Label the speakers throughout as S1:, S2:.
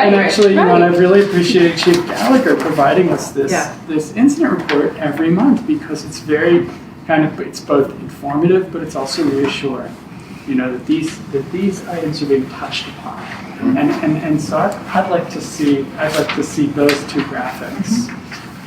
S1: And actually, you
S2: right.
S1: know, and I really appreciate Chief Gallagher providing us this,
S2: Yeah.
S1: this incident report every month because it's very kind of, it's both informative, but it's also reassuring. You know, that these, that these items are being touched upon. And, and, and so I'd, I'd like to see, I'd like to see those two graphics.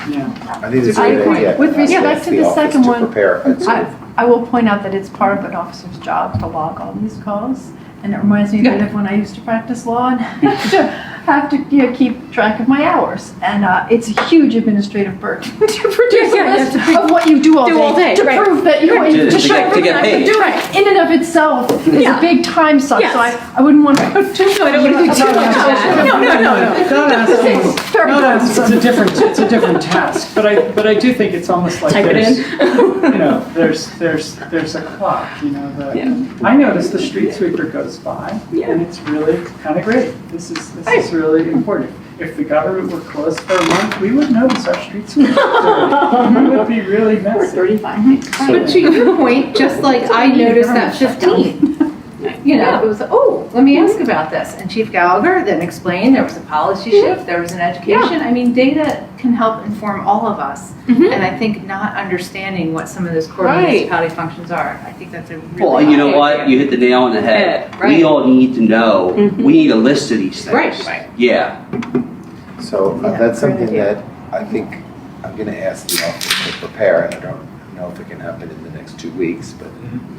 S1: Yeah,
S3: I think it's a
S4: I
S3: good
S4: agree.
S3: idea.
S4: With
S3: Ask
S4: respect
S3: ask
S4: to the
S3: office
S4: second one,
S3: To prepare. It's-
S4: I, I will point out that it's part of an officer's job to log all these calls. And it reminds me a bit of when I used to practice law and have to, have to you know, keep track of my hours. And uh, it's a huge administrative burden to produce a
S2: Yeah, yeah,
S4: list
S2: to pre-
S4: of what you do all
S2: do
S4: day.
S2: all day,
S4: To
S2: right.
S4: prove that you're,
S5: To-
S4: to
S5: to
S4: show
S5: get- to
S4: proof
S5: get
S4: that I can
S5: paid.
S4: do it. In and of itself is a
S2: Yeah.
S4: big time suck.
S2: Yes.
S4: So I, I wouldn't want to put too much.
S2: I don't want to do
S4: about
S2: too much of that.
S4: that.
S2: No, no, no, no.
S1: Not
S4: This is
S1: asking,
S4: very
S1: not
S4: time
S1: asking- it's a different, it's a different task, but I, but I do think it's almost like
S2: Type it
S1: there's,
S2: in.
S1: you know, there's, there's, there's a clock, you know,
S2: Yeah.
S1: the, I notice the street sweeper goes by,
S2: Yeah.
S1: and it's really kind of great. This is, this is really important. If the government were closed for a month, we would notice our street sweeper. We would be really messy.
S6: But to your point, just like I noticed that 15, you know, it was, oh, let me ask about this. And Chief Gallagher then explained there was a policy shift, there was an education. I mean, data can help inform all of us.
S2: Mhm.
S6: And I think not understanding what some of those core
S2: Right.
S6: municipality functions are, I think that's a really.
S5: Well, you know
S6: high
S5: what?
S6: area.
S5: You hit the nail on the head.
S6: Yeah, right. Mm-hmm.
S5: We all need to know.
S2: Mhm.
S5: We need a list of these things.
S6: Right, right.
S5: Yeah.
S3: So uh, that's
S4: Yeah, great
S3: something
S4: idea.
S3: that I think I'm gonna ask the office to prepare, and I don't know if it can happen in the next two weeks, but,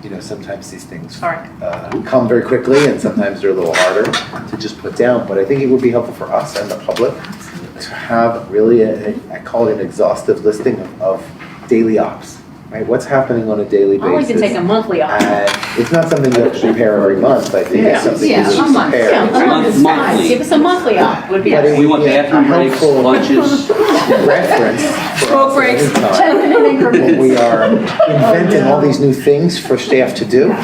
S3: you know, sometimes these things
S6: Sorry.
S3: uh, come very quickly, and sometimes they're a little harder to just put down, but I think it would be helpful for us and the public to have really, a- a- I call it an exhaustive listing of- of daily ops, right? What's happening on a daily basis?
S2: I'll even take a monthly off.
S3: And Uh, it's not something you have to prepare every month, I think
S1: Yeah.
S3: it's something
S6: Yeah,
S3: you
S6: a
S3: should
S6: month,
S3: prepare.
S2: Yeah, a month is fine.
S5: Monthly.
S2: Give us a monthly off, would be
S3: But
S2: nice.
S3: it-
S5: We want bathroom
S3: Yeah,
S5: breaks,
S3: helpful.
S5: lunches.
S3: reference. for
S2: Smoke
S3: us
S2: breaks.
S3: at any time.
S4: 10 minute increments.
S3: And we are inventing all these new things for staff to do,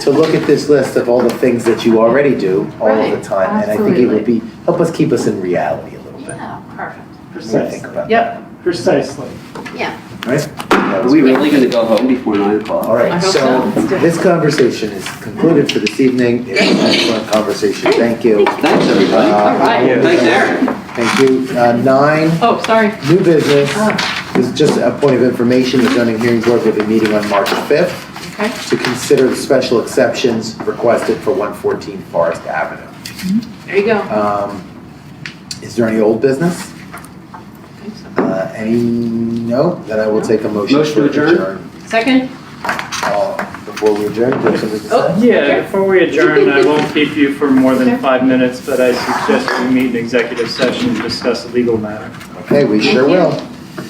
S3: to look at this list of all the things that you already do all of the
S6: Right,
S3: time. And I think it would be, help us keep us in reality a little bit.
S2: Oh,
S6: Yeah, perfect.
S3: when we think
S1: Precisely,
S3: about
S6: Yep.
S1: precisely.
S3: that, Right? That
S5: Are
S3: was
S5: we
S3: great.
S5: really going to go home before nine o'clock?
S3: All right, so this conversation is concluded for this evening. It was an excellent conversation. Thank you.
S5: Thanks, everybody.
S3: All
S2: right.
S5: Thanks, Aaron.
S3: Thank you. Uh, Nine,
S2: Oh, sorry.
S3: New business,
S2: Ah.
S3: this is just a point of information, the zoning hearing board will be meeting on March 5th
S2: Okay.
S3: to consider the special exceptions requested for 114 Forest Avenue.
S2: There you go.
S3: Um, Is there any old business? Uh, Any, no, then I will take a motion.
S5: Motion to
S3: for
S5: adjourn?
S2: Second?
S3: Uh, Before we adjourn, do you have something to
S2: Oh.
S3: say?
S2: Sure.
S7: Yeah, before we adjourn, I won't keep you for more than five minutes, but I suggest we meet in executive session to discuss a legal matter.
S3: Okay, we sure
S2: Thank you.
S3: will.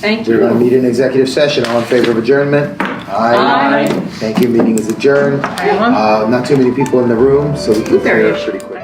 S2: Thank
S3: We're
S2: you.
S3: going to meet in executive session, all in favor of adjournment?
S2: Aye. Um.
S3: Thank you, meeting is adjourned.
S2: Everyone?
S3: Uh, Not too many people in the room, so we can
S2: There
S3: clear
S2: is.
S3: pretty quick.